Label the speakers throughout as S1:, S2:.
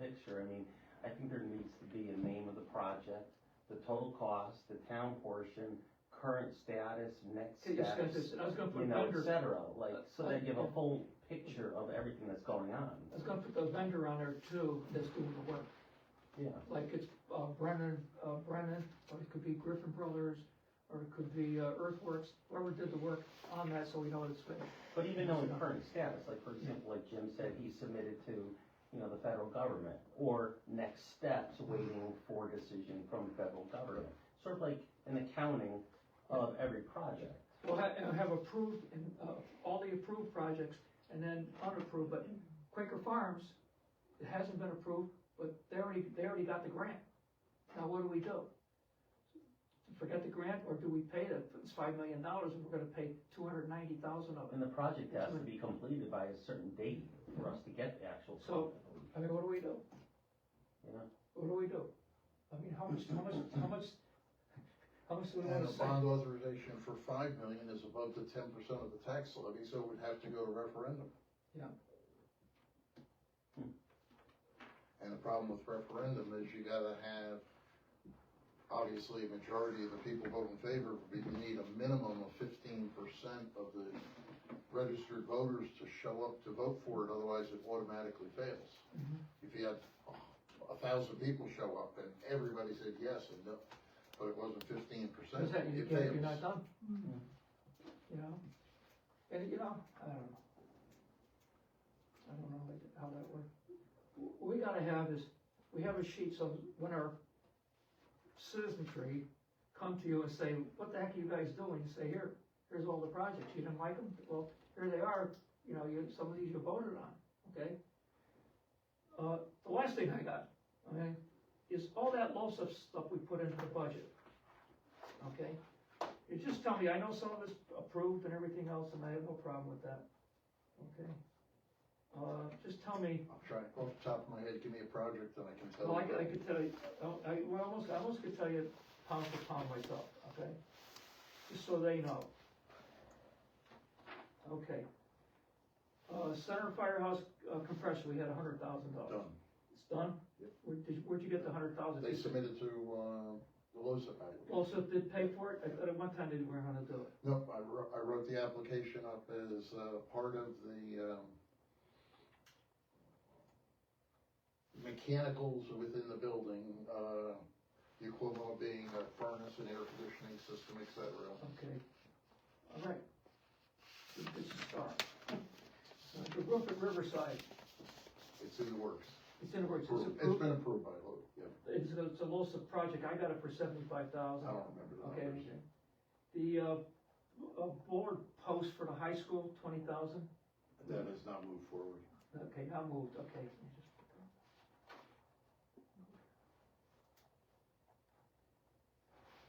S1: picture, I mean, I think there needs to be a name of the project, the total cost, the town portion, current status, next
S2: Okay, just gonna-
S1: steps,
S2: I was gonna
S1: you
S2: put
S1: know, et
S2: vendor,
S1: cetera, like, so they give a full picture of everything that's going on.
S2: I was gonna put the vendor on there too, that's doing the work,
S1: Yeah,
S2: like it's uh, Brennan, uh, Brennan, or it could be Griffin Brothers, or it could be uh, Earthworks, whoever did the work on that, so we know it's finished.
S1: but even knowing current status, like, for example, like Jim said, he submitted to, you know, the federal government, or next steps, waiting for decision from the federal government, sort of like an accounting of every project.
S2: We'll ha- and have approved, and, uh, all the approved projects, and then unapproved, but Quaker Farms, it hasn't been approved, but they already, they already got the grant. Now what do we do? Forget the grant, or do we pay the, it's five million dollars, and we're gonna pay two hundred ninety thousand of it?
S1: And the project has to be completed by a certain date for us to get the actual.
S2: So- I mean, what do we do?
S1: Yeah.
S2: What do we do? I mean, how much, how much, how much, how much do we
S3: And
S2: wanna
S3: the
S2: say?
S3: bond authorization for five million is above the ten percent of the tax levy, so it would have to go to referendum.
S2: Yeah.
S1: Hmm.
S3: And the problem with referendum is you gotta have, obviously, a majority of the people vote in favor, but you need a minimum of fifteen percent of the registered voters to show up to vote for it, otherwise it automatically fails.
S2: Mhm.
S3: If you had a thousand people show up and everybody said yes and no, but it wasn't fifteen percent,
S2: Is that, you
S3: it
S2: can't,
S3: fails.
S2: you're not done. You know, and, you know, I don't know. I don't know like how that works. What we gotta have is, we have a sheet, so when our citizenry come to you and say, what the heck are you guys doing? You say, here, here's all the projects, you didn't like them? Well, here they are, you know, you, some of these you voted on, okay? Uh, the last thing I got, okay, is all that LoSiP stuff we put into the budget, okay? You just tell me, I know some of it's approved and everything else, and I have no problem with that, okay? Uh, just tell me,
S3: I'm trying, off the top of my head, give me a project and I can tell you.
S2: well, I could, I could tell you, oh, I, well, almost, I almost could tell you pound for pound myself, okay? Just so they know. Okay. Uh, Center Firehouse uh, compressor, we had a hundred thousand dollars.
S3: Done.
S2: It's done?
S3: Yep.
S2: Where, did, where'd you get the hundred thousand?
S3: They submitted to, uh, the LoSiP. I-
S2: Well, so did pay for it? I thought at one time they were gonna do it.
S3: No, I wrote, I wrote the application up as, uh, part of the, um, mechanicals within the building, uh, the equivalent being a furnace and air conditioning system, et cetera.
S2: Okay. All right. Good, good start. Uh, The roof at Riverside,
S3: It's in the works.
S2: it's in the works, it's
S3: It's
S2: approved.
S3: been approved by Logan, yeah.
S2: It's a, it's a LoSiP project. I got it for seventy-five thousand.
S3: I don't remember the
S2: Oh, Okay, okay.
S3: numbers.
S2: The, uh, uh, board post for the high school, twenty thousand,
S3: That has not moved forward.
S2: okay, I moved, okay.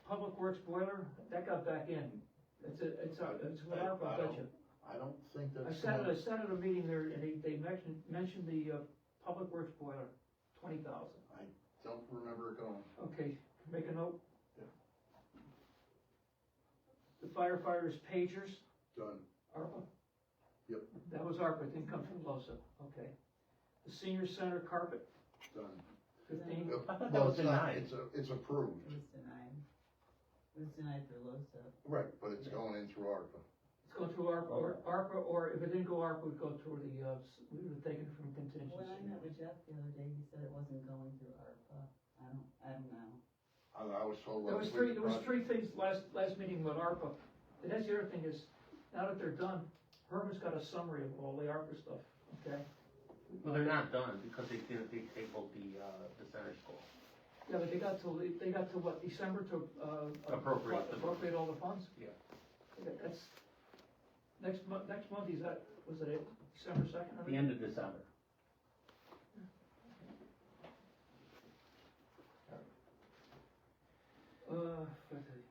S2: Public Works boiler, that got back in, it's, a- it's, a- it's with ARPA, I bet you.
S3: I don't think that's.
S2: I sat at,
S3: gonna-
S2: I sat at a meeting there, and they, they mentioned, mentioned the, uh, Public Works boiler, twenty thousand.
S3: Don't remember it going.
S2: Okay, make a note.
S3: Yeah.
S2: The firefighters pagers,
S3: Done.
S2: ARPA?
S3: Yep.
S2: That was ARPA, it didn't come from LoSiP, okay. The senior center carpet,
S3: Done.
S2: fifteen,
S3: Yep.
S1: I thought that
S3: Well,
S1: was
S3: it's not,
S1: denied.
S3: it's, a- it's approved,
S4: It was denied. It was denied for LoSiP.
S3: right, but it's going in through ARPA.
S2: it's going through ARPA, or, ARPA, or if it didn't go ARPA, we'd go through the, uh, s- we would have taken it from
S4: When I met
S2: contingency.
S4: with Jeff the other day, he said it wasn't going through ARPA. I don't, I don't know.
S3: I, I was told.
S2: There was
S3: last
S2: three,
S3: week
S2: there was
S3: about-
S2: three things last, last meeting with ARPA, and that's the other thing is, now that they're done, Herman's got a summary of all the ARPA stuff, okay?
S1: Well, they're not done because they didn't, they tabled the, uh, the center school.
S2: Yeah, but they got till, they- they got to what, December to, uh.
S1: Appropriate the-
S2: Appropriate all the funds?
S1: Yeah.
S2: Okay, That's, next month, next month, is that, was it it, December second?
S1: The end of December.
S2: Uh, okay.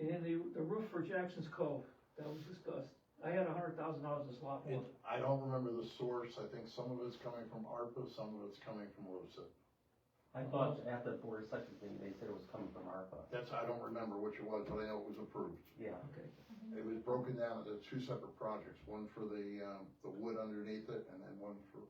S2: And the, the roof for Jackson's Cove, that was discussed, I had a hundred thousand dollars in slot one.
S3: It, I don't remember the source, I think some of it's coming from ARPA, some of it's coming from LoSiP.
S1: I thought at the board of selectmen thing, they said it was coming from ARPA.
S3: That's, I don't remember which it was, but I know it was approved.
S1: Yeah.
S2: Okay,
S3: It was broken down into two separate projects, one for the, um, the wood underneath it, and then one for